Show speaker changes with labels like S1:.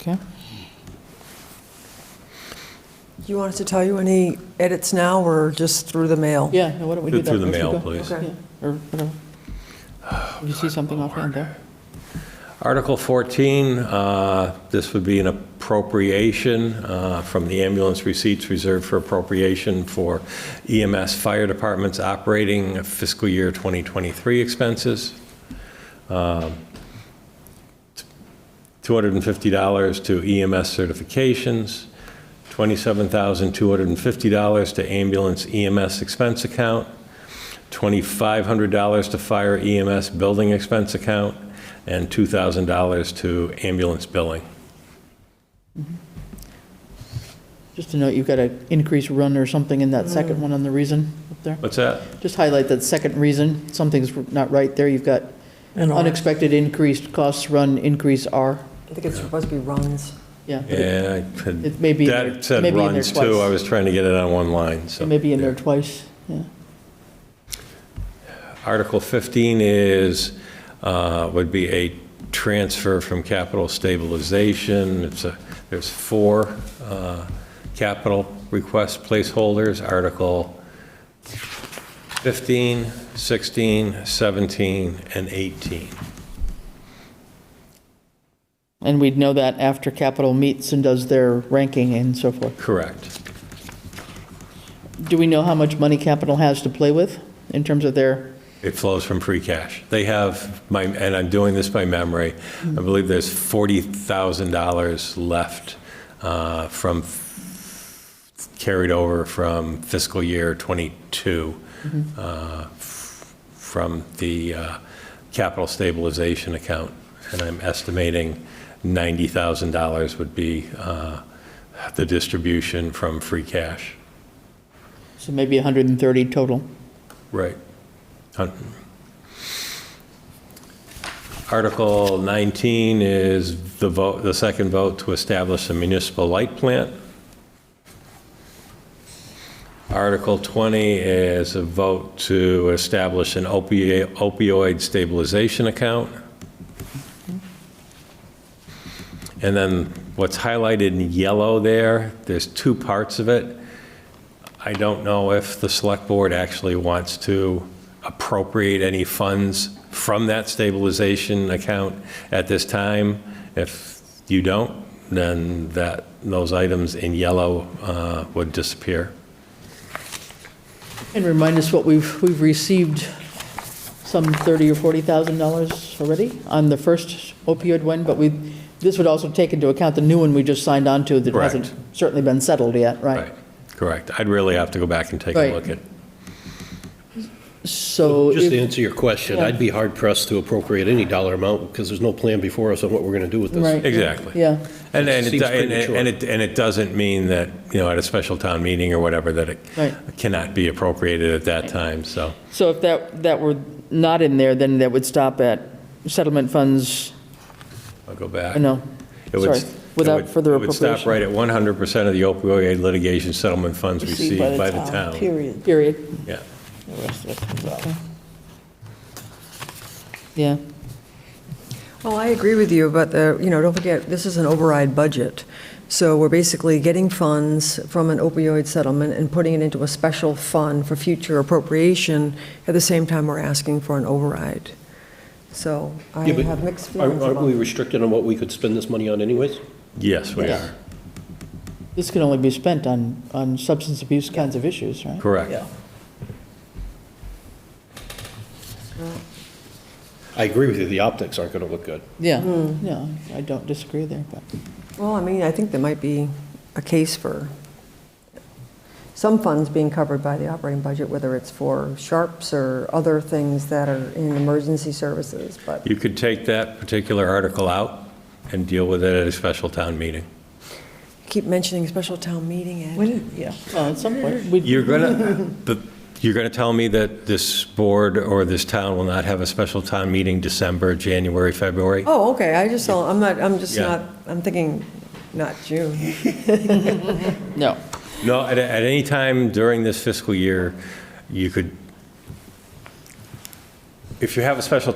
S1: Okay.
S2: Do you want us to tell you any edits now, or just through the mail?
S1: Yeah, no, why don't we do that?
S3: Through the
S1: first,
S3: mail,
S1: Rico?
S3: please.
S2: Okay.
S1: Yeah, Or whatever. Did you see something offhand there?
S3: Article 14, uh, this would be an appropriation uh, from the ambulance receipts reserved for appropriation for EMS Fire Department's operating fiscal year 2023 expenses. Um, $250 to EMS certifications, $27,250 to ambulance EMS expense account, $2,500 to fire EMS building expense account, and $2,000 to ambulance billing.
S1: Just to note, you've got an increased run or something in that second one on the reason up there.
S3: What's that?
S1: Just highlight that second reason, something's not right there. You've got
S2: And R.
S1: unexpected increased costs run, increase R.
S2: I think it's supposed to be runs.
S1: Yeah. but it-
S3: Yeah, I had-
S1: It may be in there-
S3: that said
S1: may be in there
S3: runs too. I
S1: twice.
S3: was trying to get it on one line, so.
S1: It may be in there
S3: yeah.
S1: twice, yeah.
S3: Article 15 is, uh, would be a transfer from capital stabilization. It's a, there's four uh, capital request placeholders, Article 15, 16, 17, and 18.
S1: And we'd know that after Capitol meets and does their ranking and so forth.
S3: Correct.
S1: Do we know how much money Capitol has to play with in terms of their,
S3: It flows from free cash. They have, my, and I'm doing this by memory, I believe there's $40,000 left uh, from, f- carried over from fiscal year '22, uh, f- from the uh, capital stabilization account. And I'm estimating $90,000 would be uh, the distribution from free cash.
S1: so maybe 130 total?
S3: Right. Hun- Article 19 is the vote, the second vote to establish a municipal light plant. Article 20 is a vote to establish an opi- opioid stabilization account. And then what's highlighted in yellow there, there's two parts of it. I don't know if the select board actually wants to appropriate any funds from that stabilization account at this time. If you don't, then that, those items in yellow uh, would disappear.
S1: And remind us what we've, we've received some 30 or 40,000 dollars already on the first opioid one, but we, this would also take into account the new one we just signed on to that
S3: Correct.
S1: hasn't certainly been settled yet, right?
S3: Correct. I'd really have to go back and take a
S1: Right.
S3: look at.
S1: So,
S4: Just to
S1: if-
S4: answer your question,
S1: Yeah.
S4: I'd be hard pressed to appropriate any dollar amount because there's no plan before us on what we're going to do with this.
S1: right.
S3: Exactly.
S1: Yeah,
S3: And, and it,
S4: Seems
S3: and it-
S4: premature.
S3: and it, and it doesn't mean that, you know, at a special town meeting or whatever, that it
S1: Right.
S3: cannot be appropriated at that time, so.
S1: so if that, that were not in there, then that would stop at settlement funds,
S3: I'll go back.
S1: no,
S3: It would-
S1: sorry, without
S3: it would-
S1: further
S3: It would stop
S1: appropriation.
S3: right at 100% of the opioid litigation settlement funds
S5: received
S3: received by the town.
S5: Period.
S1: Period,
S3: Yeah.
S5: The rest of it comes out.
S1: yeah.
S2: Well, I agree with you, but, the- you know, don't forget, this is an override budget. So we're basically getting funds from an opioid settlement and putting it into a special fund for future appropriation. At the same time, we're asking for an override. So I
S4: Yeah, but
S2: have mixed feelings
S4: Aren't aren't
S2: about
S4: we restricted on what we could spend this money on anyways?
S3: Yes, we
S1: Yes.
S3: are.
S1: This can only be spent on, on substance abuse kinds of issues, right?
S3: Correct.
S4: I agree with you, the optics aren't going to look good.
S1: Yeah, yeah, I don't disagree there, but.
S2: Well, I mean, I think there might be a case for some funds being covered by the operating budget, whether it's for sharps or other things that are in emergency services, but,
S3: You could take that particular article out and deal with it at a special town meeting.
S2: keep mentioning special town meeting, Ed.
S5: Yeah.
S1: Well, at some point, we,
S3: You're gonna, but you're gonna tell me that this board or this town will not have a special town meeting December, January, February?
S2: Oh, okay, I just, saw- I'm not, I'm just
S3: Yeah.
S2: not, I'm thinking not June.
S1: no,
S3: No, at, at any time during this fiscal year, you could, if you have a special